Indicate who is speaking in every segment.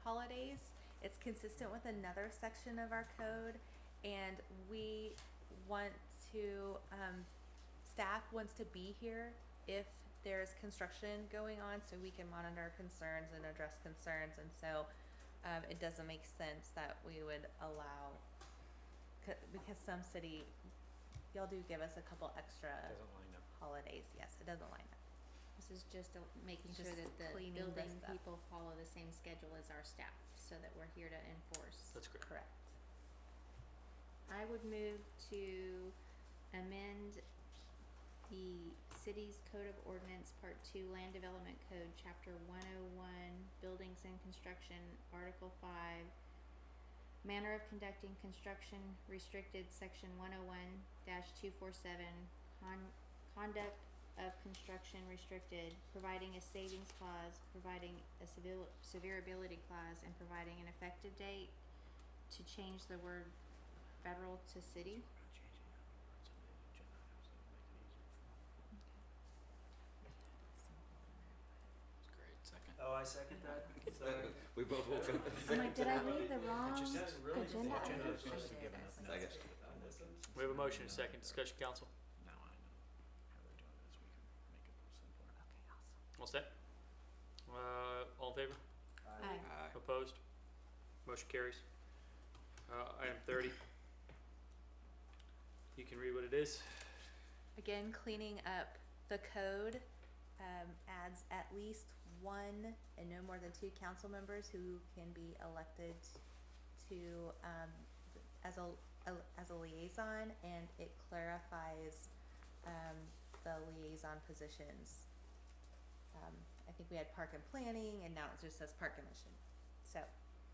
Speaker 1: holidays. It's consistent with another section of our code, and we want to, um, staff wants to be here if there's construction going on, so we can monitor concerns and address concerns, and so, um, it doesn't make sense that we would allow, c- because some city, y'all do give us a couple extra
Speaker 2: Doesn't line up.
Speaker 1: holidays, yes, it doesn't line up.
Speaker 3: This is just a- making
Speaker 1: Just
Speaker 3: sure that the
Speaker 1: cleaning this
Speaker 3: building
Speaker 1: up.
Speaker 3: people follow the same schedule as our staff, so that we're here to enforce.
Speaker 4: That's great.
Speaker 1: Correct.
Speaker 3: I would move to amend the city's code of ordinance, part two, land development code, chapter one oh one, buildings and construction, article five, manner of conducting construction restricted, section one oh one two four seven, con- conduct of construction restricted, providing a savings clause, providing a sevil- severability clause, and providing an effective date to change the word federal to city.
Speaker 4: That's great. Second.
Speaker 5: Oh, I second that, sorry.
Speaker 6: We both woke up.
Speaker 3: I'm like, did I read the wrong
Speaker 5: It just really is
Speaker 3: agenda?
Speaker 5: the agenda
Speaker 3: item?
Speaker 5: is supposed to be
Speaker 3: I did,
Speaker 5: given us
Speaker 3: I
Speaker 6: I
Speaker 3: think.
Speaker 6: guess.
Speaker 4: We have a motion, and a second. Discussion, council.
Speaker 2: Now I know how we're doing this, we can make it simpler.
Speaker 1: Okay, awesome.
Speaker 4: All set? Uh, all in favor?
Speaker 3: Aye.
Speaker 6: Aye.
Speaker 4: Opposed? Motion carries. Uh, item thirty. You can read what it is.
Speaker 1: Again, cleaning up the code, um, adds at least one and no more than two council members who can be elected to, um, as a, a- as a liaison, and it clarifies, um, the liaison positions. Um, I think we had park and planning, and now it just says park commission, so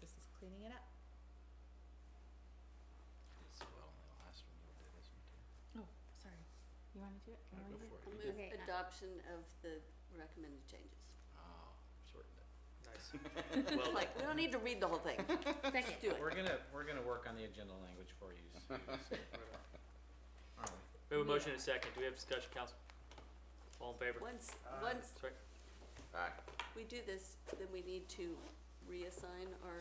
Speaker 1: this is cleaning it up.
Speaker 4: It's well, the last one you did this one too.
Speaker 3: Oh, sorry. You want me to do it? You want me to do
Speaker 4: for
Speaker 7: I'll
Speaker 4: it.
Speaker 7: move
Speaker 3: Okay, I-
Speaker 7: adoption of the recommended changes.
Speaker 4: Oh, shortened it. Nice.
Speaker 7: It's like, we don't need to read the whole thing,
Speaker 3: it? Second.
Speaker 7: do it.
Speaker 2: We're gonna, we're gonna work on the agenda language for you, Susan, aren't we?
Speaker 4: We have a motion, and a second. Do we have discussion, council? All in favor?
Speaker 7: Once, once
Speaker 4: Sorry.
Speaker 6: Aye.
Speaker 7: we do this, then we need to reassign our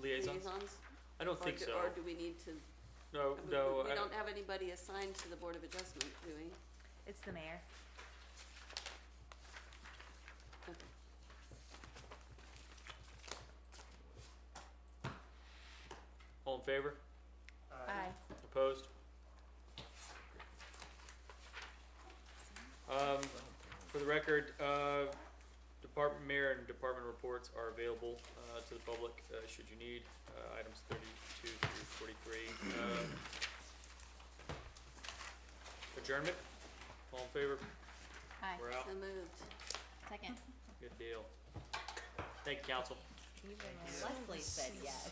Speaker 4: Liaisons?
Speaker 7: liaisons?
Speaker 4: I don't
Speaker 7: Or
Speaker 4: think
Speaker 7: do-
Speaker 4: so.
Speaker 7: Or do we need to,
Speaker 4: No,
Speaker 7: we-
Speaker 4: no.
Speaker 7: we
Speaker 4: I-
Speaker 7: don't have anybody assigned to the Board of Adjustment, do we?
Speaker 1: It's the mayor.
Speaker 7: Okay.
Speaker 4: All in favor?
Speaker 5: Aye.
Speaker 4: Opposed? Um, for the record, uh, department mayor and department reports are available, uh, to the public, uh, should you need, uh, items thirty-two through forty-three. Um, Adjournment, all in favor,
Speaker 3: Aye.
Speaker 4: we're out,
Speaker 7: So moved.
Speaker 3: Second.
Speaker 4: good deal. Thank you, council.
Speaker 1: Even Leslie said yes.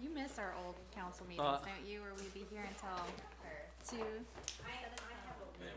Speaker 3: You miss our old council meetings,
Speaker 4: Uh,
Speaker 3: don't you? Or we'd be here until two.